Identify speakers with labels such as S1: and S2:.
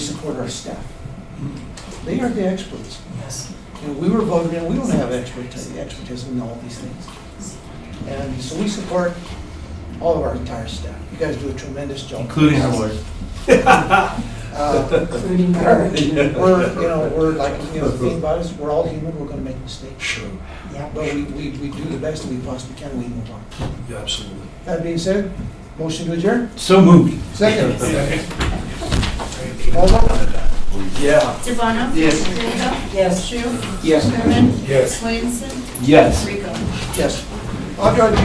S1: support our staff. They are the experts.
S2: Yes.
S1: You know, we were voted in, we don't have expertise, expertise in all these things. And so we support all of our entire staff. You guys do a tremendous job.
S3: Including our lawyers.
S1: Uh,
S2: Including
S1: We're,
S2: her.
S1: you know, we're like, you know, the thing about us, we're all human, we're gonna make mistakes.
S4: Sure,
S2: Yep.
S1: But we, we, we do the best we possibly can, we move on.
S4: yeah, absolutely.
S1: That being said, motion to adjourn?
S3: So moved.
S1: Second. Alderman?
S4: Yeah.
S5: Devono? Yes. Gallego?
S2: Yes.
S5: Shu? Yes. Thurman?
S4: Yes.
S5: Williamson?
S3: Yes.
S5: Rico?
S1: Yes. Audra,